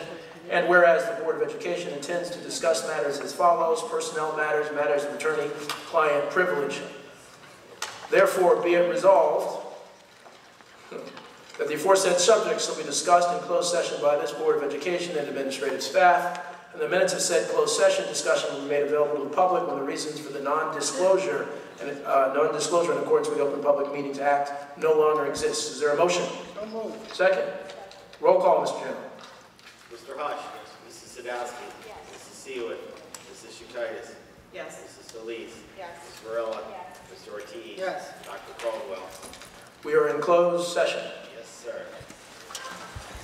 And whereas the Board of Education intends to discuss matters as follows, personnel matters, matters of attorney-client privilege. Therefore, be it resolved that the aforesaid subjects shall be discussed in closed session by this Board of Education and administrative staff. And the minutes of said closed session discussion will be made available to the public when the reasons for the non-disclosure and, uh, non-disclosure in accordance with the Open Public Meetings Act no longer exists. Is there a motion? So moved. Second. Roll call, Mr. Chairman. Mr. Hush. Mrs. Sadowski. Mrs. Seawood. Mrs. Shukitis. Yes. Mrs. Solis. Yes. Mrs. Varela. Mr. Ortiz. Yes. Dr. Caldwell. We are in closed session. Yes, sir.